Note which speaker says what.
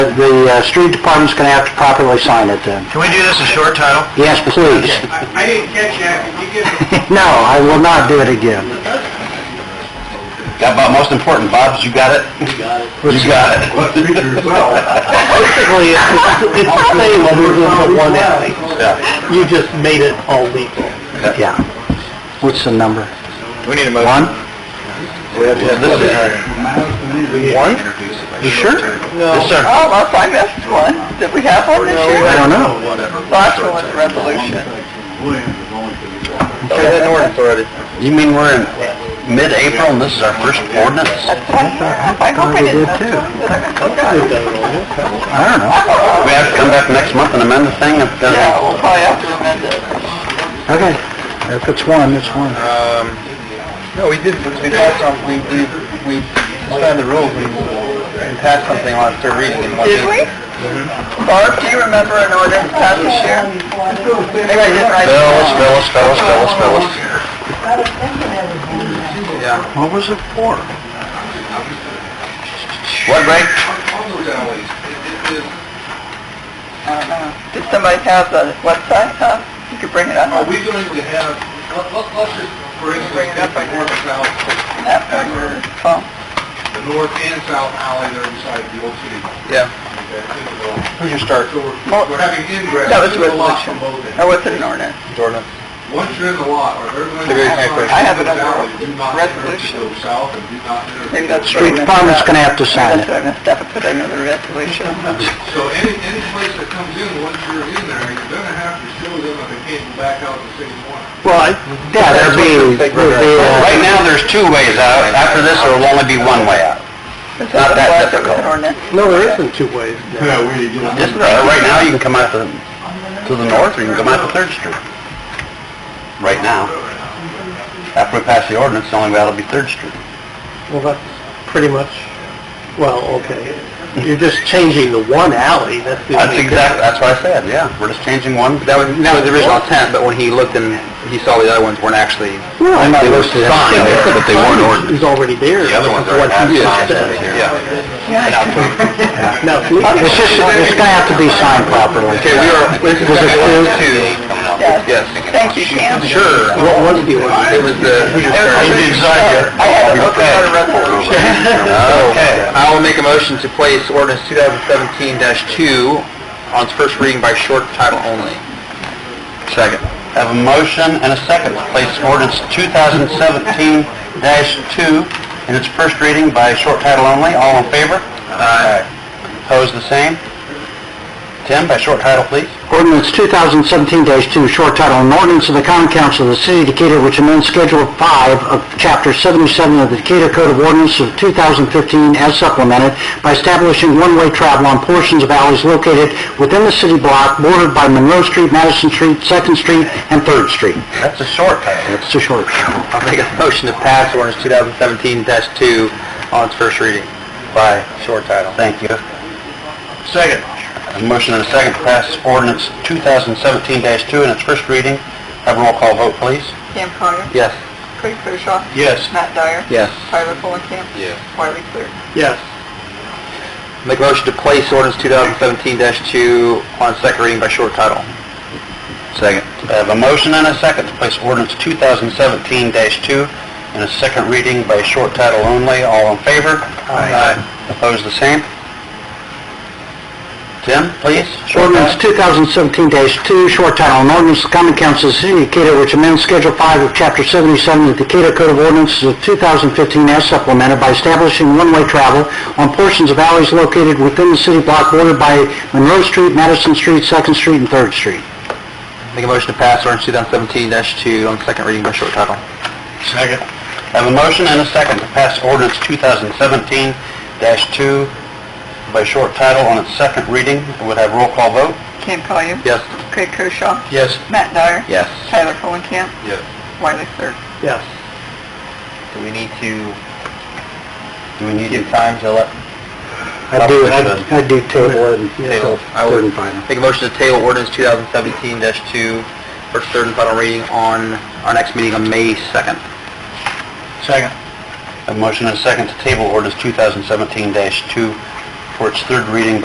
Speaker 1: the uh, street department's gonna have to properly sign it then.
Speaker 2: Can we do this in short title?
Speaker 1: Yes, please.
Speaker 3: I didn't catch that, could you give it
Speaker 1: No, I will not do it again.
Speaker 2: Got about most important, Bob, you got it? You got it. You got it.
Speaker 1: Basically, it's the same, other than the one alley.
Speaker 2: Yeah.
Speaker 1: You just made it all legal. Yeah. What's the number?
Speaker 2: We need a
Speaker 1: One?
Speaker 2: motion. We have to have this in One?
Speaker 1: You sure?
Speaker 2: Yes, sir.
Speaker 4: Oh, well, I missed one. Did we have one this year?
Speaker 1: I don't know.
Speaker 4: Last one was a resolution.
Speaker 2: We had an ordinance already. You mean we're in mid-April and this is our first ordinance?
Speaker 4: I hope I didn't. Oh,
Speaker 1: too. I don't know.
Speaker 2: We have to come back next month and amend the thing if there's...
Speaker 4: Oh, Yeah, we'll probably have to amend it.
Speaker 1: Okay, if it's one, it's one.
Speaker 2: Um, no, we did, we passed on, we, we, we suspended the rules, we we passed something on third reading in one
Speaker 4: Did we?
Speaker 2: meeting.
Speaker 4: Barb, do you remember an ordinance passed this year? Maybe I didn't write it
Speaker 2: Fellas,
Speaker 4: down.
Speaker 2: fellas, fellas, fellas, fellas. Yeah.
Speaker 1: What was it for?
Speaker 2: What, Ray?
Speaker 4: I don't know. Did somebody have the website up? You could bring it up.
Speaker 3: Are we going to have, let, let, let's just, for instance, take the north and south,
Speaker 4: After your phone.
Speaker 3: the north and south alley there beside the old city.
Speaker 2: Yeah.
Speaker 3: Okay, think of all.
Speaker 2: Who's your start?
Speaker 3: So we're, we're having ingress
Speaker 4: That was
Speaker 3: to
Speaker 4: a
Speaker 3: the lot
Speaker 4: resolution.
Speaker 3: from both
Speaker 4: Or
Speaker 3: ends.
Speaker 4: was it an ordinance?
Speaker 2: Jordan.
Speaker 3: Once you're in the lot, or they're going to...
Speaker 2: Figure it out.
Speaker 4: I have another
Speaker 3: Do not enter to
Speaker 4: resolution.
Speaker 3: go south and do not enter to
Speaker 4: Maybe
Speaker 3: go
Speaker 4: that's what I
Speaker 1: Street
Speaker 4: missed
Speaker 1: department's
Speaker 4: up.
Speaker 1: gonna have to
Speaker 4: Maybe
Speaker 1: sign
Speaker 4: That's
Speaker 1: it.
Speaker 4: what I missed up. I put another resolution.
Speaker 3: So any, any place that comes in, once you're in there, you're gonna have to show them that they can't go back out the same one.
Speaker 1: Well, yeah, there'd be, there'd
Speaker 2: Right
Speaker 1: be, uh,
Speaker 2: now, there's two ways out. After this, there will only be one way out.
Speaker 4: It's
Speaker 2: Not that difficult.
Speaker 4: Ordinance.
Speaker 1: no, there isn't two ways.
Speaker 3: Yeah, we, you know.
Speaker 2: Just, uh, right now, you can come out to, to the north, or you can come out to Third Street. Right now. After we pass the ordinance, the only way out will be Third Street.
Speaker 1: Well, that's pretty much, well, okay. You're just changing the one alley, that's the
Speaker 2: That's exactly, that's what I said, yeah. We're just changing one. That was, that was the original intent, but when he looked and he saw the other ones weren't actually,
Speaker 1: Well, I
Speaker 2: they were signed, but they weren't ordinance.
Speaker 1: He's already there.
Speaker 2: The other ones are
Speaker 1: What
Speaker 2: not
Speaker 1: he
Speaker 2: signed.
Speaker 1: said.
Speaker 2: Yeah.
Speaker 1: No, it's just, it's gonna have to be signed properly.
Speaker 2: Okay, we are, this is
Speaker 1: Was it
Speaker 2: second
Speaker 1: two?
Speaker 4: Yes.
Speaker 2: Yes.
Speaker 4: Thank you, Cam.
Speaker 2: Sure.
Speaker 1: What was the
Speaker 2: It was the...
Speaker 4: You did sign it. I had to look at a resolution.
Speaker 2: Okay, I will make a motion to place ordinance 2017-2 on its first reading by short title only. Second. I have a motion and a second to place ordinance 2017-2 in its first reading by short title only. All in favor? Aye. Opposed, the same? Tim, by short title, please.
Speaker 1: Ordinance 2017-2, short title, an ordinance of the common council of the city of Decatur which amends Schedule 5 of Chapter 77 of the Decatur Code of Ordinances of 2015 as supplemented by establishing one-way travel on portions of alleys located within the city block bordered by Monroe Street, Madison Street, Second Street, and Third Street.
Speaker 2: That's a short title.
Speaker 1: It's a short.
Speaker 2: I'll make a motion to pass ordinance 2017-2 on its first reading by short title. Thank you. Second. A motion and a second to pass ordinance 2017-2 in its first reading. Have a roll call vote, please.
Speaker 4: Cam Collier.
Speaker 2: Yes.
Speaker 4: Craig Koshaw.
Speaker 2: Yes.
Speaker 4: Matt Dyer.
Speaker 2: Yes.
Speaker 4: Tyler Fulenkamp.
Speaker 2: Yes.
Speaker 4: Wiley Sear.
Speaker 1: Yes.
Speaker 2: Make a motion to place ordinance 2017-2 on second reading by short title. Second. I have a motion and a second to place ordinance 2017-2 in its second reading by short title only. All in favor? Aye. Opposed, the same? Tim, please? Short
Speaker 1: Ordinance
Speaker 2: title.
Speaker 1: 2017-2, short title, an ordinance of the common council of the city of Decatur which amends Schedule 5 of Chapter 77 of the Decatur Code of Ordinances of 2015 as supplemented by establishing one-way travel on portions of alleys located within the city block bordered by Monroe Street, Madison Street, Second Street, and Third Street.
Speaker 2: Make a motion to pass ordinance 2017-2 on second reading by short title. Second. I have a motion and a second to pass ordinance 2017-2 by short title on its second reading. Would have roll call vote?
Speaker 4: Cam Collier.
Speaker 2: Yes.
Speaker 4: Craig Koshaw.
Speaker 2: Yes.
Speaker 4: Matt Dyer.
Speaker 2: Yes.
Speaker 4: Tyler Fulenkamp.
Speaker 2: Yes.
Speaker 4: Wiley Sear.
Speaker 1: Yes.
Speaker 2: Do we need to, do we need to time to let?
Speaker 1: I do, I I do table it until
Speaker 2: I would-
Speaker 1: third and final.
Speaker 2: Make a motion to table ordinance 2017-2 for third and final reading on our next meeting on May 2nd. Second. A motion and a second to table ordinance 2017-2 for its third reading